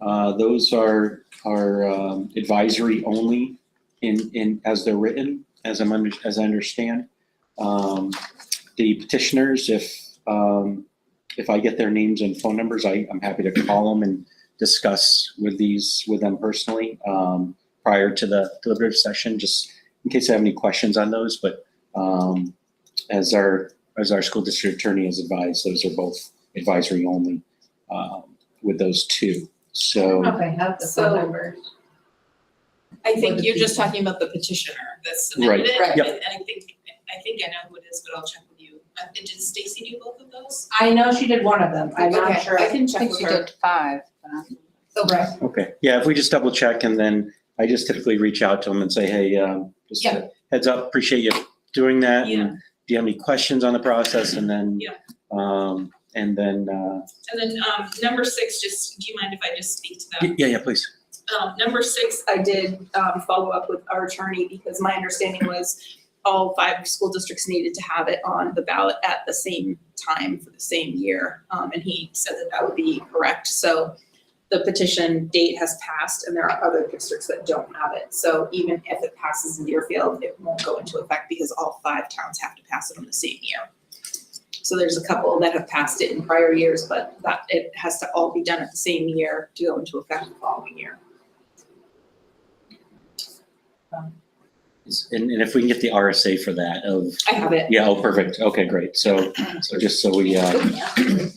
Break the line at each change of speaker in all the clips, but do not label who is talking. Uh, Those are, are um, advisory only in, in, as they're written, as I'm, under- as I understand. Um, The petitioners, if, um, if I get their names and phone numbers, I, I'm happy to call them and discuss with these, with them personally um, prior to the deliberative session, just in case I have any questions on those. But um, as our, as our school district attorney has advised, those are both advisory only um, with those two. So.
Okay, have the
So-
phone number.
I
For
think
the
you're just
people.
talking about the petitioner that's
Right.
submitted it.
Right.
Yep.
And I think, I think I know who it is, but I'll check with you. Uh, Did Stacy do both of those?
I know she did one of them, I'm not
Okay,
sure.
I can
I
check
think
with
she
her.
did five, but I'm-
So, right,
Okay, yeah, if we just double check and then I just typically reach out to them and say, hey, um, just a heads up, appreciate you doing that.
Yeah.
and Do you have any questions on the process? And then,
Yeah.
um, and then, uh,
And then, um, number six, just, do you mind if I just speak to them?
y- yeah, yeah, please.
Um, number six, I did, um, follow up with our attorney because my understanding was all five school districts needed to have it on the ballot at the same time for the same year. Um, and he said that that would be correct. So the petition date has passed and there are other districts that don't have it. So even if it passes in Deerfield, it won't go into effect because all five towns have to pass it on the same year. So there's a couple that have passed it in prior years, but that, it has to all be done at the same year to go into effect the following year.
Is- And, and if we can get the RSA for that of,
I have it.
yeah, oh, perfect. Okay, great. So, so just so we, uh,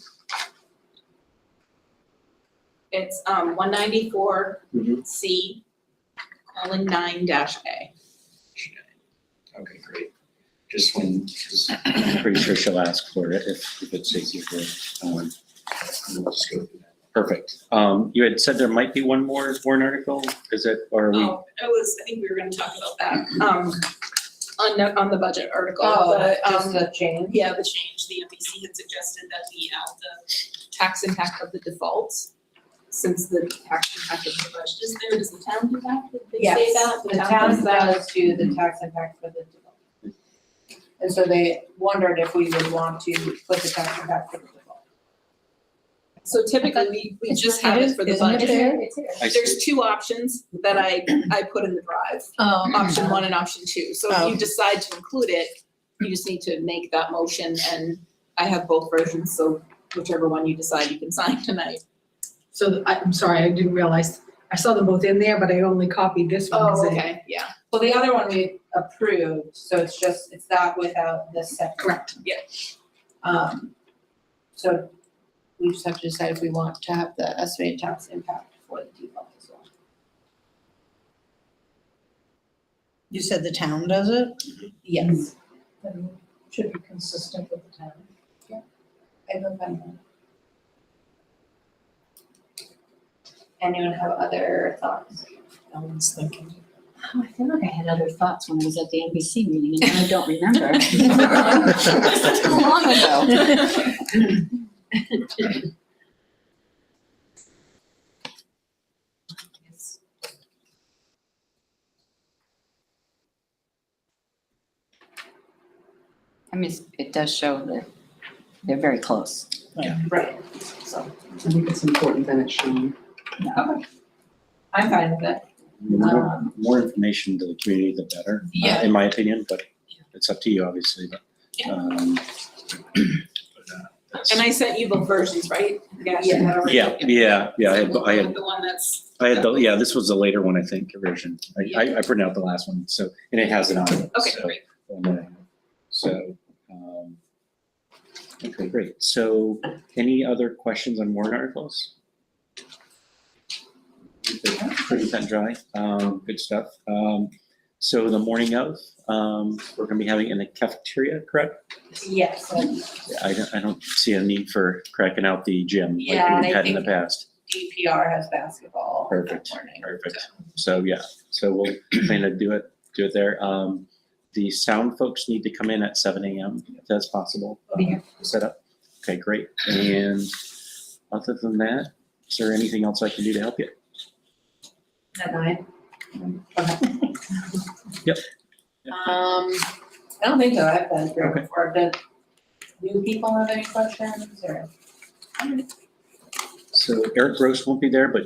It's um one ninety-four
Mhm.
C colon nine dash A.
okay, great. Just when, 'cause I'm pretty sure she'll ask for it if, if it's easier for, um, we'll just go through that. Perfect. Um, you had said there might be one more warrant article, is it, or are we?
Oh, I was, I think we were gonna talk about that, um, on the, on the budget article,
oh,
the,
just
um,
the change.
yeah, the change, the MBC had suggested that we add the tax impact of the default. Since the tax impact of the budget is there, does the town do that? Did they say
Yes,
that?
The town
does that?
does do the tax impact for the development. And so they wondered if we would want to put the tax impact for the development.
So typically, we, we
It's
just
not-
have
it
it
is-
for the
isn't it
budget.
there?
It's here.
I see.
There's two options that I, I put in the drive, option one and option two. So if
Oh.
you decide to include it, you just need to make that motion and I have both versions, so whichever one you decide you can sign tonight.
So th- I- I'm sorry, I didn't realize, I saw them both in there, but I only copied this one. 'cause I-
Yeah,
Well, the other one we approved, so it's just, it's that without the second.
Correct.
Yeah.
Um, so we just have to decide if we want to have the estimated tax impact for the default as well.
You said the town does it?
Yes.
then should be consistent with the town.
I vote by no. Anyone have other thoughts?
I was thinking.
Oh, I feel like I had other thoughts when I was at the NBC meeting and now I don't remember. Too long ago. I mean, it's- it does show that they're very close.
Right.
I think it's important that it's shown.
I'm fine with it.
The More
Um,
more information to the community, the better, uh,
Yeah.
in my opinion, but it's up to you, obviously, but. um, but, uh, that's-
and I sent you both versions, right? Yeah.
Yeah, yeah, yeah, I had, I had,
The one that's,
I had, the yeah, this was the later one, I think, version. I, I, I printed out the last one, so, and it has it on it,
okay,
so-
great.
and then- So, um, okay, great. So any other questions on warrant articles? Pretty cut and dry, um, good stuff. Um, so the morning of, um, we're gonna be having in the cafeteria, correct?
Yes, and
Yeah, I don't, I don't see a need for cracking out the gym
Yeah,
like
and
we've
I
had in the
think-
past.
DPR has basketball that
Perfect.
morning.
Perfect. So, yeah, so we'll plan to do it, do it there. Um, the sound folks need to come in at seven AM, if that's possible.
Be here.
uh, Set up. Okay, great. And other than that, is there anything else I can do to help you?
At nine?
Yep.
Um, I don't think so, I've been through
Okay.
it before, but do people have any questions or?
So Eric Gross won't be there, but